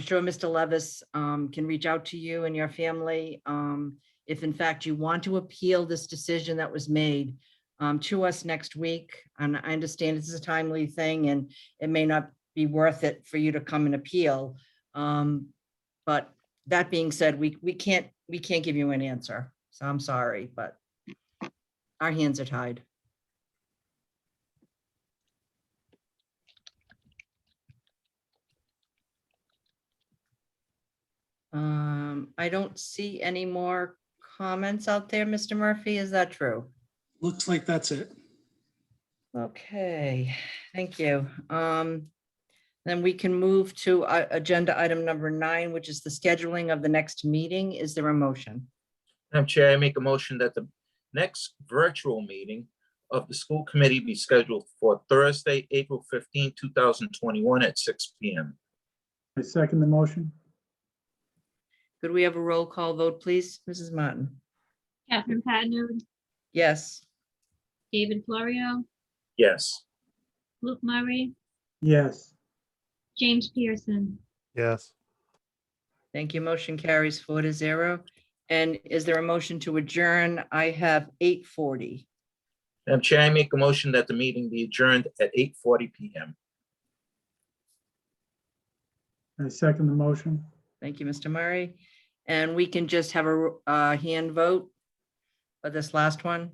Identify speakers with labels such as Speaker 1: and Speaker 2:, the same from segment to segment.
Speaker 1: I'm sure Mr. Levis um, can reach out to you and your family. um, If in fact you want to appeal this decision that was made um, to us next week, and I understand this is a timely thing and it may not be worth it for you to come and appeal. um, But that being said, we, we can't, we can't give you an answer. So I'm sorry, but our hands are tied. Um, I don't see any more comments out there, Mr. Murphy. Is that true?
Speaker 2: Looks like that's it.
Speaker 1: Okay, thank you. Um, then we can move to uh, agenda item number nine, which is the scheduling of the next meeting. Is there a motion?
Speaker 3: Madam Chair, I make a motion that the next virtual meeting of the school committee be scheduled for Thursday, April 15, 2021 at 6 PM.
Speaker 4: I second the motion.
Speaker 1: Could we have a roll call vote, please? Mrs. Martin?
Speaker 5: Catherine Patino,
Speaker 1: Yes.
Speaker 5: David Florio,
Speaker 3: Yes.
Speaker 5: Luke Murray,
Speaker 4: Yes,
Speaker 5: James Pearson.
Speaker 6: Yes,
Speaker 1: Thank you. Motion carries four to zero. And is there a motion to adjourn? I have eight forty.
Speaker 3: Madam Chair, I make a motion that the meeting be adjourned at 8:40 PM.
Speaker 4: I second the motion.
Speaker 1: Thank you, Mr. Murray. And we can just have a uh, hand vote for this last one.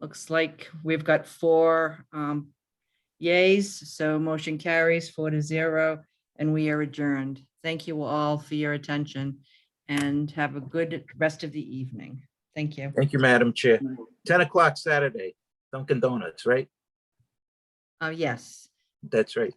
Speaker 1: Looks like we've got four um, yays, so motion carries four to zero, and we are adjourned. Thank you all for your attention and have a good rest of the evening. Thank you.
Speaker 3: Thank you, Madam Chair. 10 o'clock Saturday, Dunkin' Donuts, right?
Speaker 1: Oh, yes.
Speaker 3: That's right.